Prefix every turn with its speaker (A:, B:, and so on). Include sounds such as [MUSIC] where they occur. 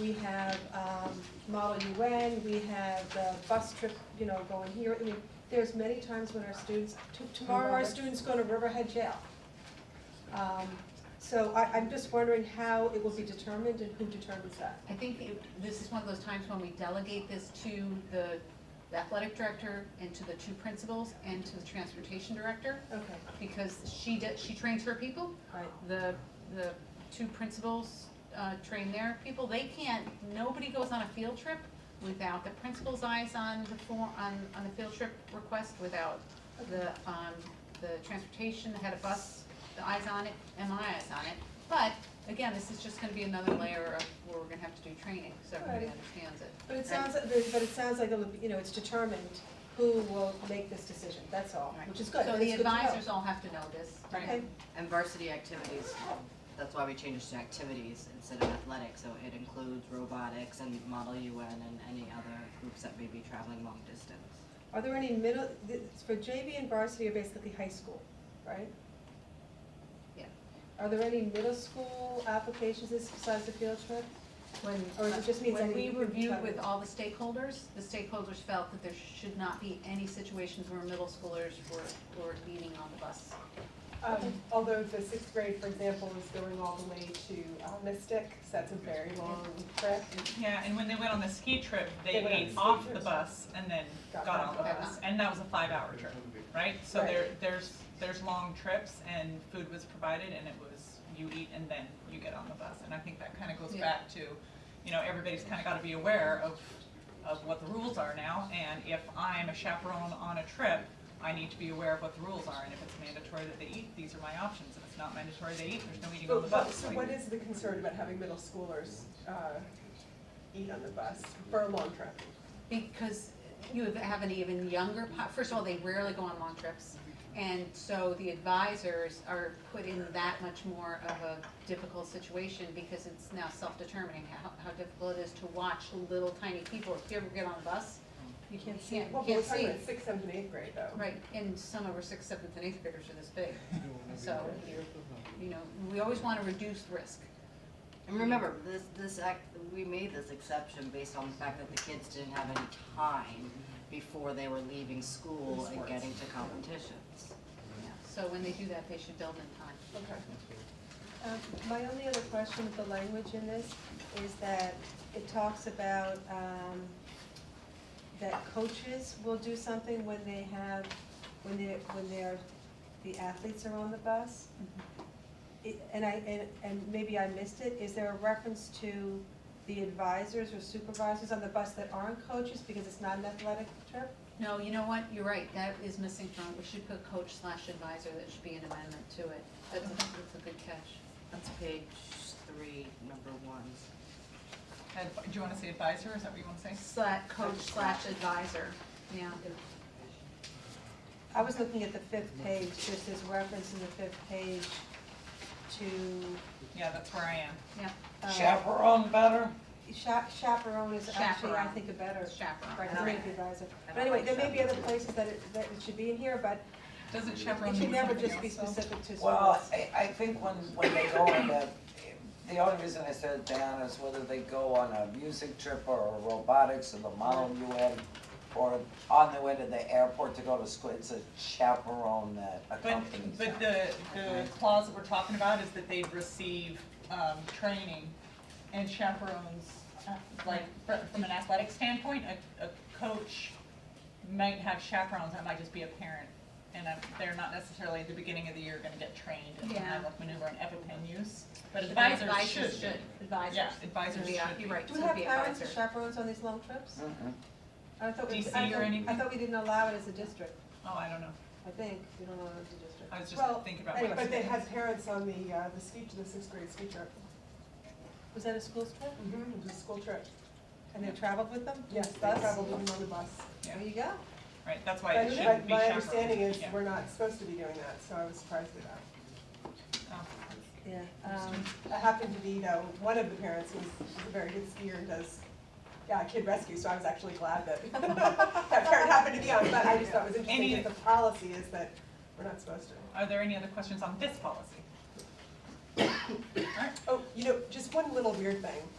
A: we have, um, Model UN, we have the bus trip, you know, going here, I mean, there's many times when our students, t- tomorrow our
B: Riverhead.
A: students go to Riverhead Jail. Um, so I, I'm just wondering how it will be determined and who determines that.
B: I think it- this is one of those times when we delegate this to the athletic director and to the two principals and to the transportation director,
A: Okay,
B: because she did, she trains her people,
A: right,
B: the, the two principals, uh, train their people, they can't, nobody goes on a field trip without the principal's eyes on the form, on, on the field trip request, without the, um, the transportation, the head of bus, the eyes on it, and my eyes on it. But, again, this is just gonna be another layer of where we're gonna have to do training, so everybody
A: Right.
B: understands it.
A: but it sounds, but it sounds like, it'll be- you know, it's determined who will make this decision, that's all,
B: Right.
A: which is good,
B: So
A: That's
B: the
A: good to know.
B: advisors all have to know this.
A: Okay,
C: And varsity activities, that's why we changed it to activities instead of athletics, so it includes robotics and Model UN and any other groups that may be traveling long distance.
A: are there any middle, th- for JV and varsity are basically high school, right?
B: Yeah.
A: Are there any middle school applications this besides the field trip?
B: When, uh,
A: Or is it just means
B: when
A: that
B: we
A: you can
B: reviewed
A: travel?
B: with all the stakeholders, the stakeholders felt that there should not be any situations where middle schoolers were, were leaning on the bus.
D: Um, although the sixth grade, for example, is going all the way to uh, Mystic, so that's a very long trip.
E: Yeah, and when they went on the ski trip,
D: They
E: they
D: went on
E: ate
D: the ski
E: off the
D: trips.
E: bus and then
D: Got
E: got
D: back
E: on the
B: on the
E: bus, and that was a five-hour trip, right? So
D: Right.
E: there, there's, there's long trips and food was provided and it was, you eat and then you get on the bus. And I think that kind of goes
B: Yeah.
E: back to, you know, everybody's kind of got to be aware of, of what the rules are now. And if I'm a chaperone on a trip, I need to be aware of what the rules are, and if it's mandatory that they eat, these are my options. If it's not mandatory they eat, there's no eating on the bus.
D: Oh, So what is the concern about having middle schoolers uh, eat on the bus for a long trip?
B: Because you have- have an even younger, po- first of all, they rarely go on long trips. And so the advisors are put in that much more of a difficult situation because it's now self-determining how, how difficult it is to watch little tiny people. If you ever get on a bus, you can't, you
D: Well,
B: can't
D: we're
B: see.
D: talking about sixth, seventh, and eighth grade though.
B: Right, and some of our sixth, seventh, and eighth graders are this big. So, you know, we always want to reduce risk.
C: And remember, this, this act, we made this exception based on the fact that the kids didn't have any time before they were leaving school and
E: Sports.
C: getting to competitions.
B: Yeah. So when they do that, they should build in time.
D: Okay.
A: Um, My only other question with the language in this is that it talks about um, that coaches will do something when they have, when they're, when they're, the athletes are on the bus. It- And I, and, and maybe I missed it, is there a reference to the advisors or supervisors on the bus that aren't coaches because it's not an athletic trip?
B: No, you know what, you're right, that is missing from, we should put coach slash advisor, that should be an amendment to it. That's, a- that's a good catch.
C: That's page three, number one.
E: And Do you want to say advisor, is that what you want to say?
B: Slash, coach slash advisor, yeah.
A: I was looking at the fifth page, just this reference in the fifth page to.
E: Yeah, that's where I am.
A: uh,
F: Chaperone better?
A: Cha- Chaperone is actually, I
B: Chaperone.
A: think, a better,
B: Chaperone.
A: right, it's
C: Okay.
A: gonna be advisor.
C: I
A: But
C: don't
A: anyway,
C: like
A: there may be other places that it, that it should be in here, but
E: Doesn't chaperone
A: it
E: mean
A: should never
E: something
A: just be
E: else, though?
A: specific to
F: Well,
A: sports.
F: I, I think when, when they go on the, the only reason I said it down is whether they go on a music trip or a robotics or the Model UN or on the way to the airport to go to school, it's a chaperone that
E: But,
F: accompanies them.
E: but the, the clause that we're talking about is that they'd receive, um, training and chaperones, uh, like, fr- from an athletic standpoint, a, a coach might have chaperones, that might just be a parent, and um, they're not necessarily at the beginning of the year gonna get trained in
B: Yeah.
E: high left maneuver and EpiPen use, but advisors should.
B: Advisors should, advisors.
E: Yeah, advisors
B: Yeah,
E: should be.
B: You're right,
A: Do
B: so
A: we
B: it'd
A: have
B: be
A: parents or
B: advisor.
A: chaperones on these long trips?
F: Mhm.
A: I thought we- I
E: DC or
A: thought- I
E: anything?
A: thought we didn't allow it as a district,
E: Oh, I don't know,
A: I think, we don't allow it as a district.
E: I was just
D: Well,
E: thinking about.
A: anyway,
E: my-
D: But they had parents on the, uh, the ski, the sixth grade ski trip.
A: Was that a school trip?
D: It was a school trip.
A: And they traveled with them?
D: Mm-hmm. Yes, they
A: Bus?
D: traveled with them on the bus.
A: There you go.
E: Right, that's why
D: But
E: it shouldn't
D: but
E: be chaperones.
D: my understanding is
E: Yeah.
D: we're not supposed to be doing that, so I was surprised at that.
E: Oh.
A: Yeah, um,
D: I happened to be, though, one of the parents who's who's a very good skier and does, yeah, kid rescue, so I was actually glad that [LAUGHS] that parent happened to be on, but I just thought it was interesting
E: Any-
D: that the policy is that we're not supposed to.
E: Are there any other questions on this policy? [COUGHS]
D: Oh, you know, just one little weird thing.